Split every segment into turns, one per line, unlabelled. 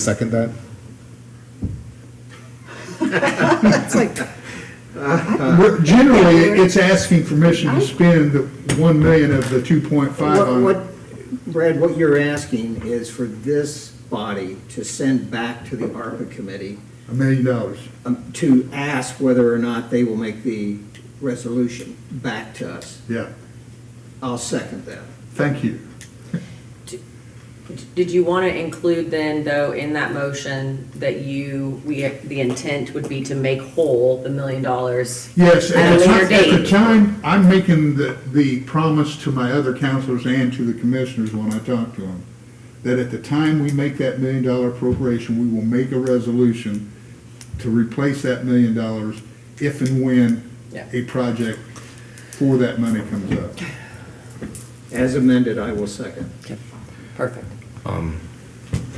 Second that?
It's like,
We're- Generally, it's asking permission to spend the 1 million of the 2.5
what,
on it.
what, Brad, what you're asking is for this body to send back to the ARPA committee
a million dollars.
um, to ask whether or not they will make the resolution back to us.
Yeah,
I'll second that.
thank you.
Did you want to include then, though, in that motion that you, we, the intent would be to make whole the million dollars?
Yes,
At
at
a
the
later
time, at the
date.
time, I'm making the, the promise to my other counselors and to the commissioners when I talk to them, that at the time we make that million dollar appropriation, we will make a resolution to replace that million dollars if and when
Yeah.
a project for that money comes up.
As amended, I will second.
Perfect.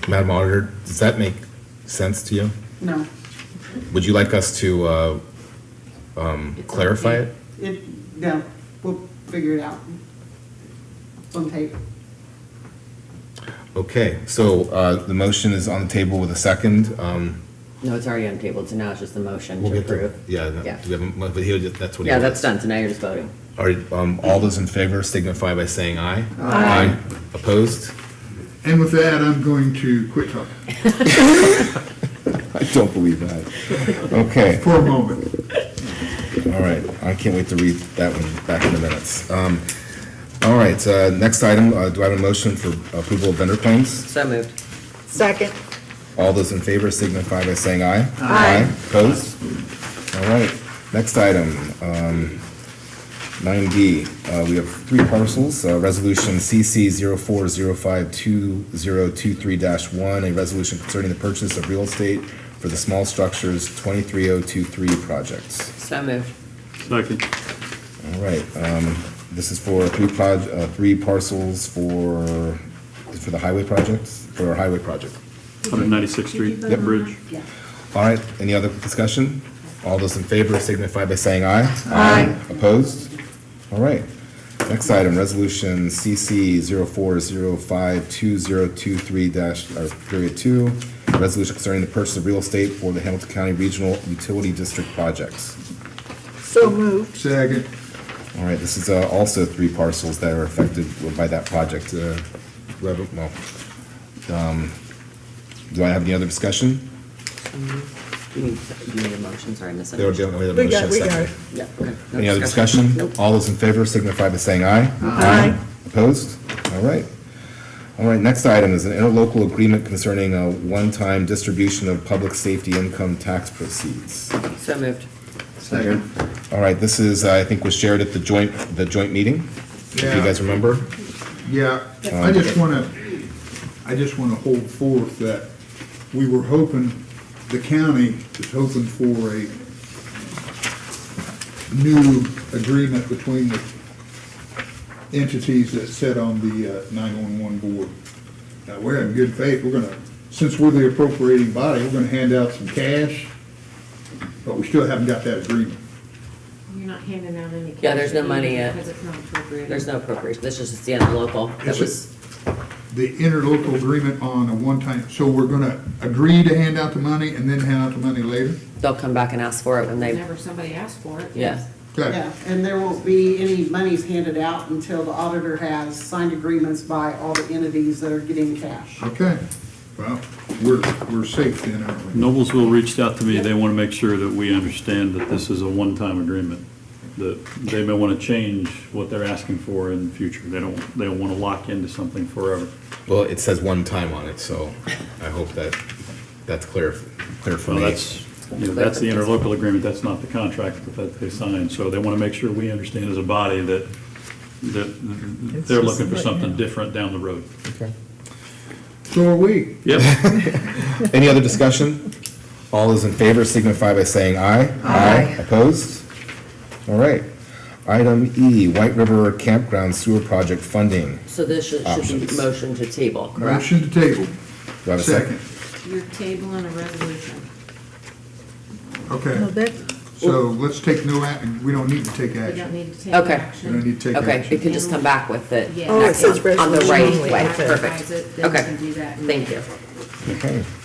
Madam Auditor, does that make sense to you?
No.
Would you like us to uh, um, clarify it?
It, no, we'll figure it out. On tape.
Okay, so uh, the motion is on the table with a second. Um,
No, it's already on the table, so now it's just the motion
We'll
to
get the-
approve.
Yeah, no,
Yeah.
do we have, a- but he'll just- that's what he
Yeah,
was.
that's done, so now you're just voting.
All right, um, all those in favor signify by saying aye. Aye. Opposed?
And with that, I'm going to quit talking
I don't believe that. Okay.
for a moment.
All right, I can't wait to read that one back in the minutes. Um, All right, uh, next item, uh, do I have a motion for approval of vendor claims?
So moved.
Second.
All those in favor signify by saying aye. Aye. Opposed? All right, next item, um, nine D, we have three parcels, uh, resolution CC 405 one, a resolution concerning the purchase of real estate for the small structures twenty-three oh two three projects.
So moved.
Second.
All right, um, this is for three proj, uh, three parcels for, for the highway projects, for our highway project.
196th Street Bridge.
All right, any other discussion? All those in favor signify by saying aye. Aye. Opposed? All right. Next item, resolution CC 04052023 dash, or period two, resolution concerning the purchase of real estate for the Hamilton County Regional Utility District projects.
So moved.
Second.
All right, this is uh, also three parcels that are affected by that project. uh, level- well, um, Do I have any other discussion?
You need, you need a motion, sorry, I missed
There would be
it.
a- we have a
We got-
motion,
we got
second.
it.
Yeah, okay. No
Any other discussion?
Nope.
All those in favor signify by saying aye.
Aye.
Opposed? All right. All right, next item is an interlocal agreement concerning a one-time distribution of public safety income tax proceeds.
So moved.
Second.
All right, this is, I think, was shared at the joint, the joint meeting, if you
Yeah.
guys remember.
Yeah, I just want to, I just want to hold forth that we were hoping, the county is hoping for a new agreement between the entities that sit on the uh, 911 board. Now, we're in good faith, we're going to, since we're the appropriating body, we're going to hand out some cash, but we still haven't got that agreement.
You're not handing out any cash.
Yeah, there's no money yet.
Because it's not appropriate.
There's no appropriation, this is just the local. That
Yes,
was,
the interlocal agreement on a one-time, so we're gonna agree to hand out the money and then hand out the money later?
they'll come back and ask for it when they,
Whenever somebody asks for it.
yeah.
Okay,
Yeah, and there won't be any monies handed out until the auditor has signed agreements by all the entities that are getting cash.
okay, well, we're, we're safe then, aren't we?
Noblesville reached out to me. They want to make sure that we understand that this is a one-time agreement. That they may want to change what they're asking for in the future. They don't, they don't want to lock into something forever.
Well, it says one time on it, so I hope that, that's clear, clear for
Well,
me.
that's, you know, that's the interlocal agreement. That's not the contract that they signed. So they want to make sure we understand as a body that, that they're looking for something different down the road.
So are we.
Yep.
Any other discussion? All those in favor signify by saying aye. Aye. Opposed? All right. Item E, White River Campground Sewer Project Funding.
So this should, should be
Options.
motion to table, correct?
Motion to table,
Do I have a
second,
second?
You're tabling a resolution.
No,
okay,
Oh, that,
so let's take no act, we don't need to take
We don't
action.
need to take
Okay.
We
action.
don't need to take
Okay, it
action.
can just come back with it.
Yeah.
Oh, it says
On the
resolution
right
only.
way,
Advertise
perfect.
it, then we
Okay,
can do that.
thank you.
Okay.